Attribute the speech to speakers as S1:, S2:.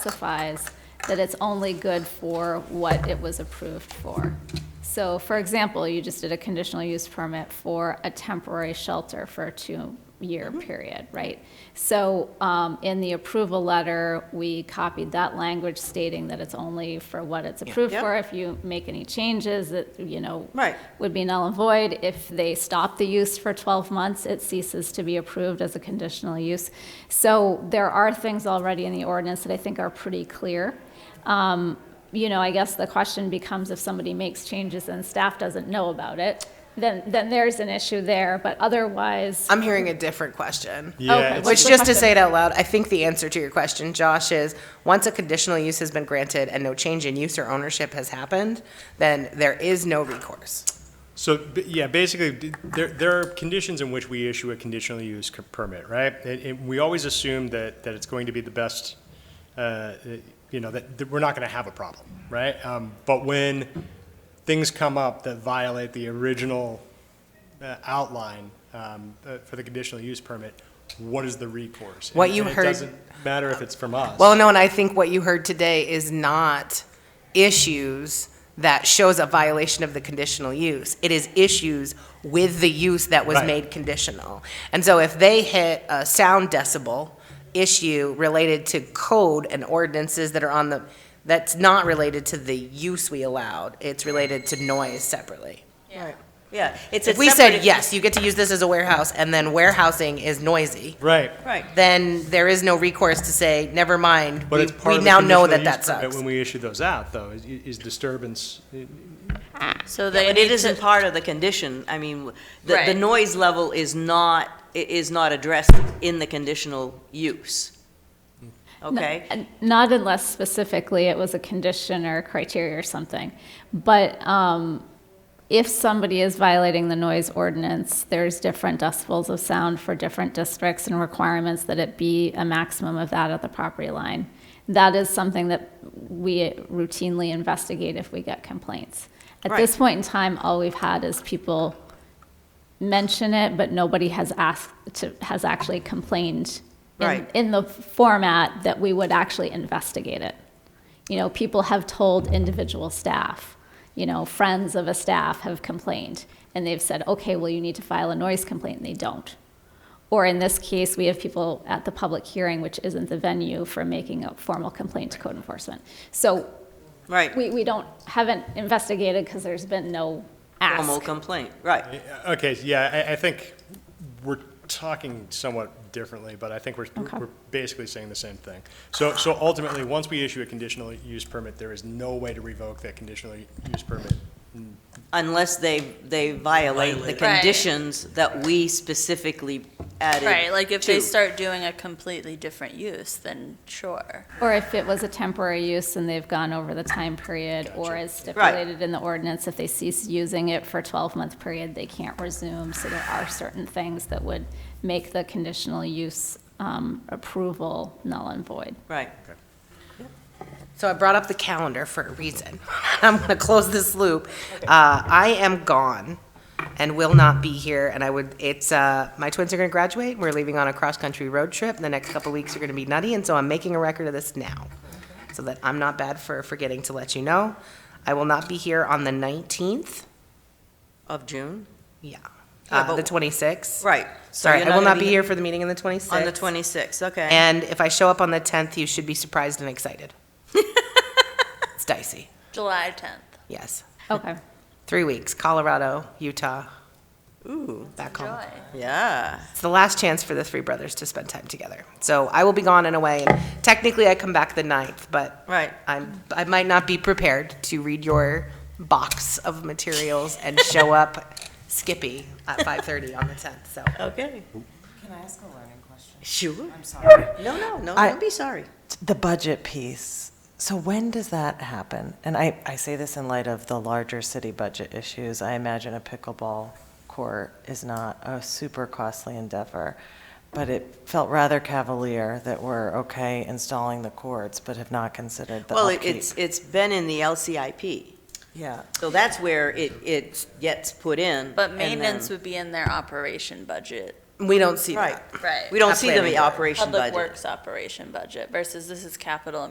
S1: specifies that it's only good for what it was approved for. So, for example, you just did a conditional use permit for a temporary shelter for a two-year period, right? So, um, in the approval letter, we copied that language stating that it's only for what it's approved
S2: Yep.
S1: for. If you make any changes, that, you know,
S2: Right.
S1: would be null and void. If they stop the use for 12 months, it ceases to be approved as a conditional use. So there are things already in the ordinance that I think are pretty clear. Um, You know, I guess the question becomes if somebody makes changes and staff doesn't know about it, then, then there's an issue there, but otherwise,
S2: I'm hearing a different question.
S1: Okay,
S3: Yeah, it's-
S1: what's
S2: Which,
S1: the
S2: just to
S1: question?
S2: say it out loud, I think the answer to your question, Josh, is once a conditional use has been granted and no change in use or ownership has happened, then there is no recourse.
S3: so, b- yeah, basically, d- there, there are conditions in which we issue a conditional use c- permit, right? And, and we always assume that, that it's going to be the best, uh, you know, that, that we're not gonna have a problem, right? Um, but when things come up that violate the original uh, outline, um, uh, for the conditional use permit, what is the recourse?
S2: What
S3: And-
S2: you
S3: and
S2: heard-
S3: It doesn't matter if it's from us.
S2: Well, no, and I think what you heard today is not issues that shows a violation of the conditional use. It is issues with the use that was
S3: Right.
S2: made conditional. And so if they hit a sound decibel issue related to code and ordinances that are on the, that's not related to the use we allowed, it's related to noise separately.
S4: Yeah, it's a
S2: If we said,
S4: separate-
S2: yes, you get to use this as a warehouse, and then warehousing is noisy,
S3: Right.
S4: Right,
S2: then there is no recourse to say, never mind,
S3: But
S2: we
S3: it's part
S2: we
S3: of the
S2: now know
S3: conditional
S2: that
S3: use
S2: that
S3: permit
S2: sucks.
S3: When we issue those out, though, is, is disturbance,
S5: Ah.
S4: so they
S5: but it
S4: need
S5: isn't
S4: to, part of the condition, I mean, the, the
S5: Right.
S4: noise level is not, i- is not addressed in the conditional use. Okay?
S1: N- Not unless specifically it was a condition or criteria or something. But um, if somebody is violating the noise ordinance, there's different decibels of sound for different districts and requirements that it be a maximum of that at the property line. That is something that we routinely investigate if we get complaints. At
S4: Right.
S1: this point in time, all we've had is people mention it, but nobody has asked to, has actually complained in,
S4: Right.
S1: in the format that we would actually investigate it. You know, people have told individual staff, you know, friends of a staff have complained, and they've said, okay, well, you need to file a noise complaint, and they don't. Or in this case, we have people at the public hearing, which isn't the venue for making a formal complaint to code enforcement. So
S4: Right,
S1: we, we don't, haven't investigated because there's been no ask.
S4: formal complaint, right.
S3: uh, okay, yeah, I, I think we're talking somewhat differently, but I think we're,
S1: Okay.
S3: we're basically saying the same thing. So, so ultimately, once we issue a conditional use permit, there is no way to revoke that conditional use permit.
S4: Unless they, they violate the
S3: Violate.
S5: Right.
S4: conditions that we specifically added
S5: right. Like if they
S4: to.
S5: start doing a completely different use, then sure.
S1: Or if it was a temporary use and they've gone over the time period, or as stipulated in the ordinance, if they cease using it for a 12-month period, they can't resume. So there are certain things that would make the conditional use um, approval null and void.
S4: Right.
S2: So I brought up the calendar for a reason. I'm going to close this loop. Uh, I am gone and will not be here. And I would, it's, uh, my twins are going to graduate. We're leaving on a cross-country road trip. The next couple weeks are going to be nutty. And so I'm making a record of this now so that I'm not bad for forgetting to let you know. I will not be here on the 19th.
S4: Of June?
S2: Yeah.
S4: Yeah,
S2: Uh,
S4: but-
S2: the 26th.
S4: Right. So
S2: Sorry,
S4: you're
S2: I will
S4: gonna
S2: not be here for the meeting on the 26th.
S4: On the twenty-sixth, okay.
S2: And if I show up on the 10th, you should be surprised and excited. It's dicey.
S5: July 10th.
S2: Yes.
S1: Okay.
S2: Three weeks, Colorado, Utah,
S4: Ooh,
S2: back home.
S5: Joy.
S4: yeah.
S2: It's the last chance for the three brothers to spend time together. So I will be gone and away. Technically, I come back the 9th, but
S4: Right.
S2: I'm, I might not be prepared to read your box of materials and show up skippy at 5.30 on the 10th. So
S4: Okay.
S6: Can I ask a learning question?
S4: Sure.
S6: I'm sorry.
S4: No, no, no,
S6: I-
S4: don't be sorry.
S6: The budget piece. So when does that happen? And I, I say this in light of the larger city budget issues. I imagine a pickleball court is not a super costly endeavor. But it felt rather cavalier that we're okay installing the courts, but have not considered the
S4: Well, it-
S6: upkeep.
S4: it's, it's been in the LCIP,
S6: Yeah,
S4: so that's where it, it gets put in.
S5: But
S4: and
S5: maintenance
S4: then-
S5: would be in their operation budget.
S2: we don't see
S4: Right,
S2: that.
S5: Right.
S4: we don't
S2: Not
S4: see them
S2: planning
S4: in the
S2: board.
S4: operation
S5: Public
S4: budget.
S5: Works operation budget versus this is capital